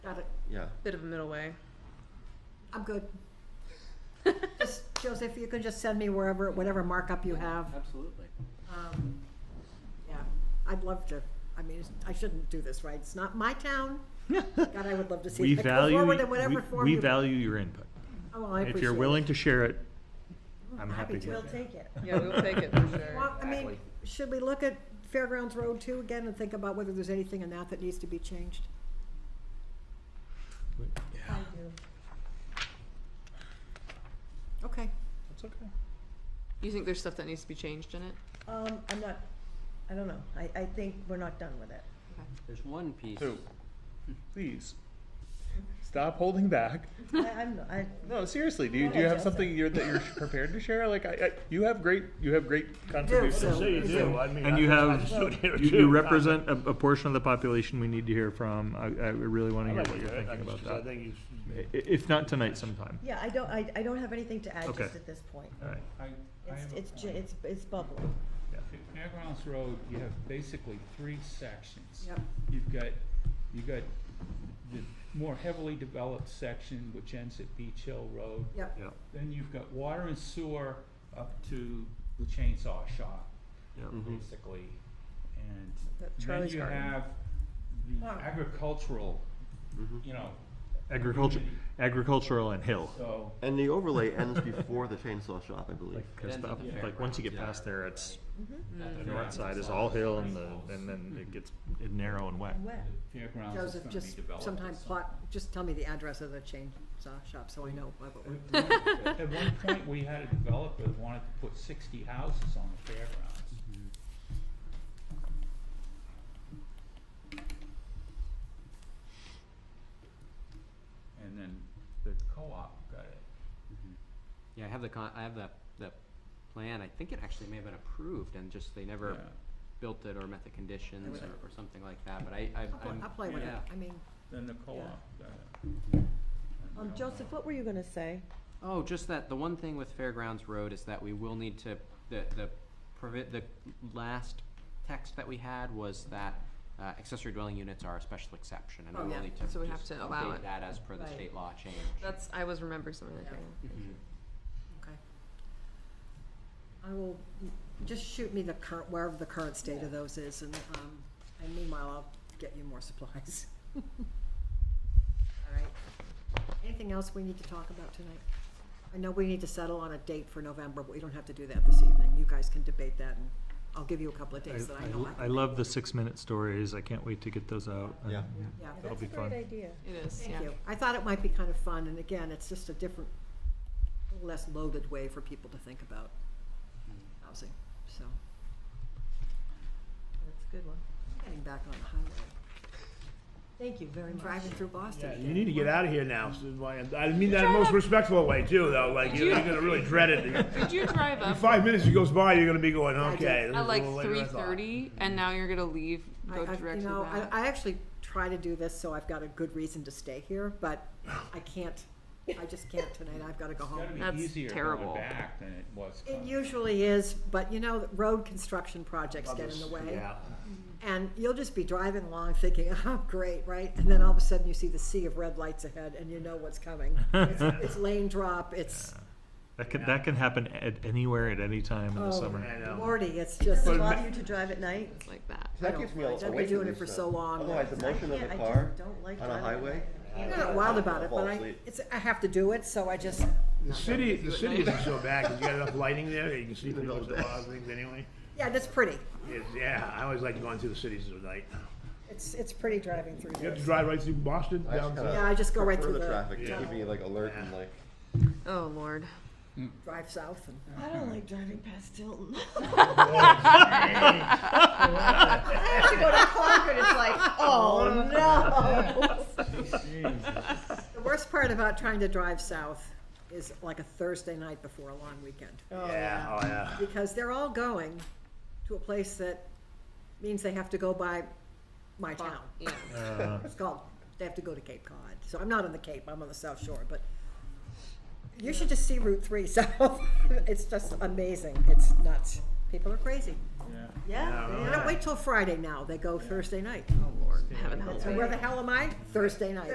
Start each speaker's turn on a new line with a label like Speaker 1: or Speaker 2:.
Speaker 1: yeah.
Speaker 2: Bit of a middle way.
Speaker 3: I'm good. Just, Joseph, you can just send me wherever, whatever markup you have.
Speaker 4: Absolutely.
Speaker 3: Um, yeah, I'd love to, I mean, it's- I shouldn't do this, right? It's not my town. God, I would love to see
Speaker 5: We
Speaker 3: it go
Speaker 5: value,
Speaker 3: forward in whatever
Speaker 5: we-
Speaker 3: form
Speaker 5: we
Speaker 3: you.
Speaker 5: value your input.
Speaker 3: Oh, well, I
Speaker 5: If you're
Speaker 3: appreciate it.
Speaker 5: willing to share it, I'm
Speaker 3: Happy
Speaker 5: happy to.
Speaker 3: to, we'll take it.
Speaker 2: Yeah, we'll take it for sure.
Speaker 3: Well, I mean, should we look at Fairgrounds Road too again and think about whether there's anything in that that needs to be changed?
Speaker 5: Yeah,
Speaker 3: Okay,
Speaker 5: that's okay.
Speaker 2: You think there's stuff that needs to be changed in it?
Speaker 6: Um, I'm not, I don't know, I, I think we're not done with it.
Speaker 4: There's one piece.
Speaker 5: So, please, stop holding back.
Speaker 6: I, I'm, I,
Speaker 5: No, seriously, do you, do you have something you're, that you're prepared to share? Like, I, I, you have great, you have great
Speaker 3: so-
Speaker 5: contributions.
Speaker 3: Say you do,
Speaker 7: I mean.
Speaker 5: And you have, you, you represent a, a portion of the population we need to hear from. I, I really wanna hear what you're thinking about
Speaker 7: I
Speaker 5: that.
Speaker 7: think you
Speaker 5: I- i- If not tonight, sometime.
Speaker 6: yeah, I don't, I, I don't have anything to add
Speaker 5: Okay.
Speaker 6: just at this point.
Speaker 5: All right,
Speaker 8: I, I
Speaker 6: It's,
Speaker 8: have a
Speaker 6: it's, j-
Speaker 8: point.
Speaker 6: it's, it's bubbling.
Speaker 8: At Fairgrounds Road, you have basically three sections.
Speaker 3: yep,
Speaker 8: You've got, you've got the more heavily developed section, which ends at Beach Hill Road.
Speaker 3: yep,
Speaker 5: yeah.
Speaker 8: Then you've got water and sewer up to the chainsaw shop,
Speaker 4: Mm-hmm.
Speaker 1: Mm-hmm.
Speaker 8: basically. And
Speaker 6: That
Speaker 8: then
Speaker 6: Charlie's
Speaker 8: you
Speaker 6: Garden.
Speaker 8: have the
Speaker 6: Wow.
Speaker 8: agricultural, you know,
Speaker 5: Agriculture, agricultural and hill.
Speaker 8: so.
Speaker 1: And the overlay ends before the chainsaw shop, I believe.
Speaker 5: Like, 'cause
Speaker 4: ends
Speaker 5: the
Speaker 4: at
Speaker 5: up-
Speaker 4: the fair.
Speaker 5: like, once you get
Speaker 1: Yeah.
Speaker 5: past there, it's,
Speaker 8: that's
Speaker 5: the
Speaker 8: the
Speaker 5: north side is all hill and the, and then it gets narrow and wet.
Speaker 6: Wet.
Speaker 8: Fairgrounds is
Speaker 3: Joseph,
Speaker 8: gonna be
Speaker 3: just
Speaker 8: developed
Speaker 3: sometime
Speaker 8: as some-
Speaker 3: plot, just tell me the address of the chainsaw shop so I know what we're.
Speaker 8: At one- at one point, we had a developer that wanted to put sixty houses on the fairgrounds.
Speaker 4: Mm-hmm.
Speaker 8: And then the co-op got it.
Speaker 4: Yeah, I have the con, I have the, the plan, I think it actually may have been approved and just they never
Speaker 8: Yeah.
Speaker 4: built it or met the conditions
Speaker 3: Yeah.
Speaker 4: or, or something like that, but I, I,
Speaker 3: I'll play-
Speaker 4: I'm,
Speaker 3: I'll play with it,
Speaker 4: yeah.
Speaker 3: I mean,
Speaker 8: Then the co-op got it. And we
Speaker 6: Um,
Speaker 8: don't
Speaker 6: Joseph,
Speaker 8: know.
Speaker 6: what were you gonna say?
Speaker 4: Oh, just that, the one thing with Fairgrounds Road is that we will need to, the, the provi- the last text that we had was that uh, accessory dwelling units are a special exception, and
Speaker 3: Oh,
Speaker 4: we
Speaker 3: yeah.
Speaker 4: will need to
Speaker 2: So we have
Speaker 4: just
Speaker 2: to allow
Speaker 4: update
Speaker 2: it.
Speaker 4: that as per the
Speaker 3: Right.
Speaker 4: state law change.
Speaker 2: That's, I was remembering something like that.
Speaker 4: Mhm.
Speaker 3: okay. I will, just shoot me the current, wherever the current state of those is and, um, and meanwhile, I'll get you more supplies. All right. Anything else we need to talk about tonight? I know we need to settle on a date for November, but we don't have to do that this evening. You guys can debate that and I'll give you a couple of days that I know I
Speaker 5: I
Speaker 3: can.
Speaker 5: love the six-minute stories. I can't wait to get those out.
Speaker 1: Yeah.
Speaker 3: Yeah,
Speaker 5: That'll be
Speaker 6: That's a
Speaker 5: fun.
Speaker 6: great idea.
Speaker 2: It is, yeah.
Speaker 3: thank you. I thought it might be kind of fun and again, it's just a different, less loaded way for people to think about housing, so.
Speaker 6: That's a good one.
Speaker 3: Getting back on the highway.
Speaker 6: Thank you very
Speaker 3: I'm
Speaker 6: much.
Speaker 3: driving through Boston.
Speaker 7: You need to get out of here now. so why- I mean that in the most respectful way too, though. Like you're, you're gonna really dread it.
Speaker 2: Did you drive up?
Speaker 7: Five minutes goes by, you're gonna be going,
Speaker 3: I did.
Speaker 7: okay. this
Speaker 2: At
Speaker 7: is a
Speaker 2: like
Speaker 7: little later
Speaker 2: three
Speaker 7: than I thought."
Speaker 2: thirty, and now you're gonna leave,
Speaker 3: I-
Speaker 2: go
Speaker 3: I-
Speaker 2: directly
Speaker 3: You know, I,
Speaker 2: back.
Speaker 3: I actually try to do this, so I've got a good reason to stay here, but I can't, I just can't tonight, I've gotta go
Speaker 8: It's gotta
Speaker 3: home.
Speaker 8: be
Speaker 2: That's
Speaker 8: easier going
Speaker 2: terrible.
Speaker 8: back than it was
Speaker 3: It
Speaker 8: coming.
Speaker 3: usually is, but you know, road construction projects get in
Speaker 7: Others,
Speaker 3: the way.
Speaker 7: Yeah.
Speaker 3: And you'll just be driving along thinking, oh, great, right? And then all of a sudden you see the sea of red lights ahead and you know what's coming. It's it's lane drop, it's,
Speaker 5: That can, that can happen at anywhere at any time in
Speaker 3: Oh.
Speaker 5: the summer.
Speaker 7: I know.
Speaker 3: Lordy, it's
Speaker 6: Does
Speaker 3: just.
Speaker 6: it
Speaker 7: But
Speaker 6: bother
Speaker 7: ma-
Speaker 6: you to drive at night?
Speaker 2: It's like that.
Speaker 1: That
Speaker 3: I
Speaker 1: gets
Speaker 3: don't-
Speaker 1: me
Speaker 3: I've been
Speaker 1: away from this
Speaker 3: doing it for
Speaker 1: stuff.
Speaker 3: so long
Speaker 1: Otherwise,
Speaker 3: that
Speaker 1: the
Speaker 6: I
Speaker 1: motion of the
Speaker 6: can't- I just
Speaker 1: car
Speaker 6: don't like
Speaker 1: on a
Speaker 6: driving at
Speaker 1: highway. uh,
Speaker 6: night.
Speaker 3: I'm not wild about it,
Speaker 1: Fall
Speaker 3: but I,
Speaker 1: asleep.
Speaker 3: it's, I have to do it, so I just,
Speaker 7: The city, the city isn't so bad 'cause you got enough lighting there that you can see through
Speaker 1: middle
Speaker 7: most of
Speaker 1: of the
Speaker 7: a lot of things anyway.
Speaker 3: yeah, that's pretty.
Speaker 7: It's- yeah, I always like going through the cities at night.
Speaker 3: It's, it's pretty driving through
Speaker 7: You
Speaker 3: here.
Speaker 7: have to drive right through Boston
Speaker 1: I just
Speaker 7: down
Speaker 1: kinda
Speaker 7: to.
Speaker 3: Yeah, I just go right
Speaker 1: prefer
Speaker 3: through the-
Speaker 1: traffic, to
Speaker 7: Yeah.
Speaker 1: keep me like alert and like.
Speaker 2: Oh, lord.
Speaker 3: drive south and uh,
Speaker 6: I don't like driving past Tilton.
Speaker 7: I
Speaker 6: I have to go to Concord, it's like, oh no.
Speaker 3: the worst part about trying to drive south is like a Thursday night before a long weekend
Speaker 7: Yeah, oh yeah.
Speaker 3: because they're all going to a place that means they have to go by my town.
Speaker 2: Yeah.
Speaker 5: Uh,
Speaker 3: It's called they have to go to Cape Cod. So I'm not on the Cape, I'm on the South Shore, but you should just see Route 3 south. it's just amazing. It's nuts. People are crazy.
Speaker 8: Yeah.
Speaker 6: Yeah,
Speaker 7: Yeah,
Speaker 6: they
Speaker 3: They
Speaker 6: are.
Speaker 3: don't wait till Friday now. They go Thursday night.
Speaker 2: Oh, lord. Heaven help
Speaker 3: So
Speaker 2: me.
Speaker 3: where the hell am I? Thursday night.